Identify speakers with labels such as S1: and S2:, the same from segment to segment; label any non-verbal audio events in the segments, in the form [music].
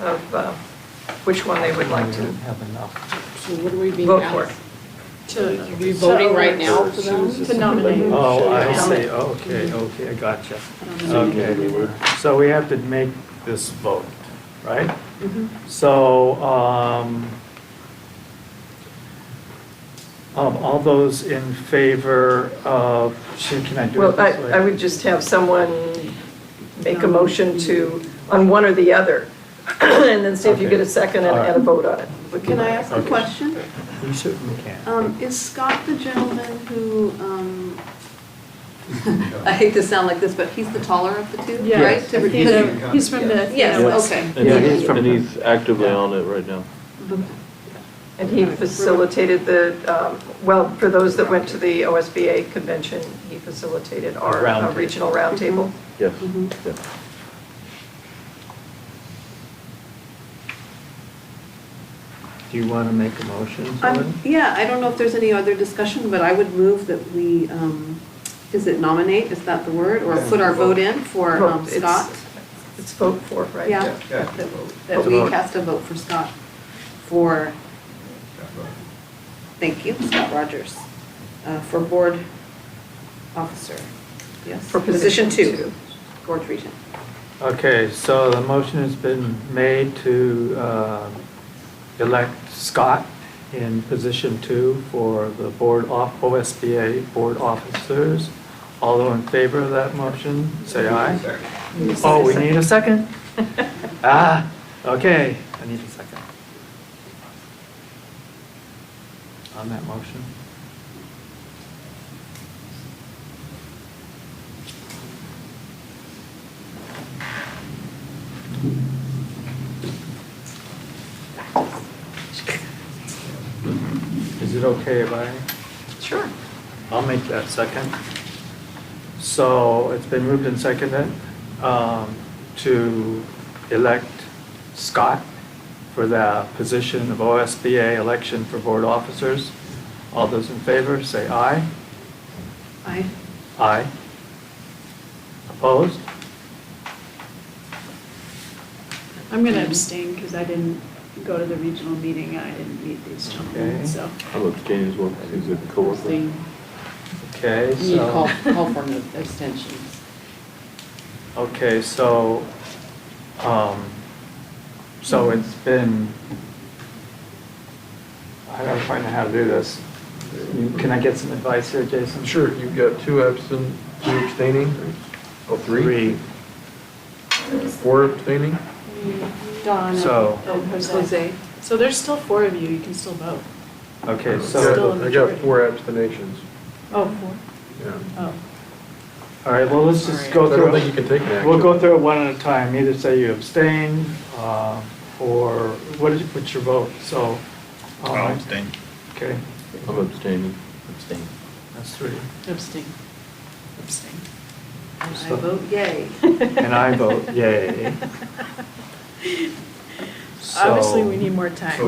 S1: of uh, which one they would like to
S2: Have enough.
S3: So what are we being
S1: vote for.
S3: asked? To, are we voting right now for them?
S4: To nominate.
S2: Oh, I see, okay, okay, I gotcha. Okay, so we have to make this vote, right?
S1: Mm-hmm.
S2: So, um, um, all those in favor of, shoot, can I do it
S1: Well, I,
S2: this way?
S1: I would just have someone make a motion to, on one or the other, [clears throat] and then see if you get a second and and a vote on it.
S4: But can I ask a
S2: Okay.
S4: question?
S2: You certainly can.
S4: Um, Is Scott the gentleman who, um, [laughs] I hate to sound like this, but he's the taller of the two,
S2: Yeah.
S4: right? To re-
S2: Yes.
S5: He's from the.
S4: Yes, okay.
S2: Yeah, he's
S6: And
S2: from-
S6: and he's actively on it right now.
S1: And he facilitated the, um, well, for those that went to the OSBA convention, he facilitated our uh,
S2: Roundtable.
S1: regional
S4: Mm-hmm.
S1: roundtable.
S6: Yes.
S1: Mm-hmm.
S4: Mhm.
S6: Yeah.
S2: Do you want to make a motion,
S4: Um,
S2: Helen?
S4: Yeah, I don't know if there's any other discussion, but I would move that we, um, is it nominate, is that the word? Or put our vote in for um,
S1: Vote. It's-
S4: Scott?
S1: It's vote for, right?
S4: Yeah,
S7: Yeah.
S4: that that we cast a vote for Scott for, thank you, Scott Rogers, uh, for board officer. Yes,
S1: For position two.
S4: Board region.
S2: Okay, so the motion has been made to uh, elect Scott in position two for the board off, OSBA board officers. All those in favor of that motion, say aye. Oh, we need a second?
S1: [laughs]
S2: Ah, okay, I need a second. On that motion. Is it okay if I?
S1: Sure.
S2: I'll make that second. So it's been moved and seconded um, to elect Scott for the position of OSBA election for board officers. All those in favor, say aye.
S4: Aye.
S2: Aye. Opposed?
S5: I'm going to abstain because I didn't go to the regional meeting. I didn't meet these gentlemen,
S2: Okay.
S5: so.
S6: I'm abstaining as well. He's a coworker.
S3: Abstain.
S2: Okay,
S3: You need to call,
S2: so,
S3: call for an abstention.
S2: okay, so, um,
S8: Hmm.
S2: so it's been, I gotta find out how to do this. Can I get some advice here, Jason?
S8: Sure, you've got two absent, two abstaining, oh, three, four abstaining?
S5: Donna.
S2: So-
S5: And Jose.
S4: Jose?
S5: So there's still four of you. You can still vote.
S2: Okay, so,
S5: Still- a
S8: I got
S5: majority.
S8: four abstentions,
S5: Oh, four?
S8: yeah.
S5: Oh.
S2: all right, well, let's just go
S8: I don't think you
S2: through,
S8: can take an action.
S2: we'll go through it one at a time, either say you abstain, uh, or what is, what's your vote, so. um, Okay,
S6: I'm abstaining. Abstain.
S2: that's three,
S3: Abstain.
S5: Abstain.
S4: And I
S2: So-
S4: vote yay.
S2: and I vote
S5: [laughs]
S2: yay.
S5: Obviously,
S2: So,
S5: we need more time.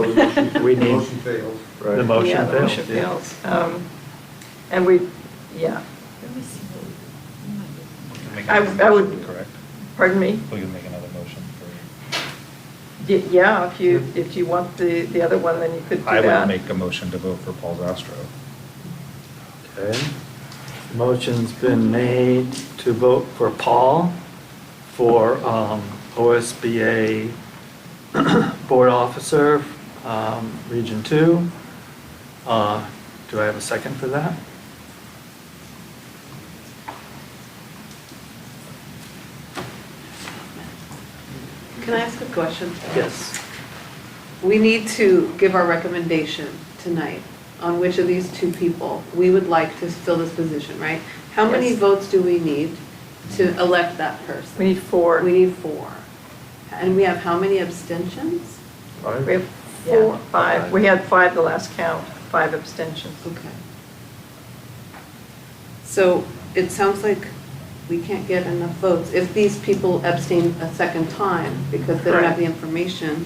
S2: We need-
S7: Motion fails.
S2: The
S8: Right.
S2: motion
S1: Yeah, the
S2: failed,
S1: motion
S2: yeah.
S1: fails. Um, And we, yeah. I, I would. Correct. Pardon me?
S9: We can make another motion for,
S1: Y- Yeah, if you, if you want the, the other one, then you could do
S9: Hmm. I
S1: that.
S9: would make a motion to vote for Paul Zastro.
S2: Okay. Motion's been made to vote for Paul for um, OSBA [clears throat] Board Officer, um, Region 2. Uh, Do I have a second for that?
S4: Can I ask a question?
S2: Yes.
S4: We need to give our recommendation tonight on which of these two people we would like to fill this position, right? How many
S1: Yes.
S4: votes do we need to elect that person?
S1: We need four.
S4: We need four. And we have how many abstentions?
S8: Five?
S1: We have four, five, we had five the last count, five abstentions.
S4: Okay. So it sounds like we can't get enough votes. If these people abstain a second time because they don't have the information,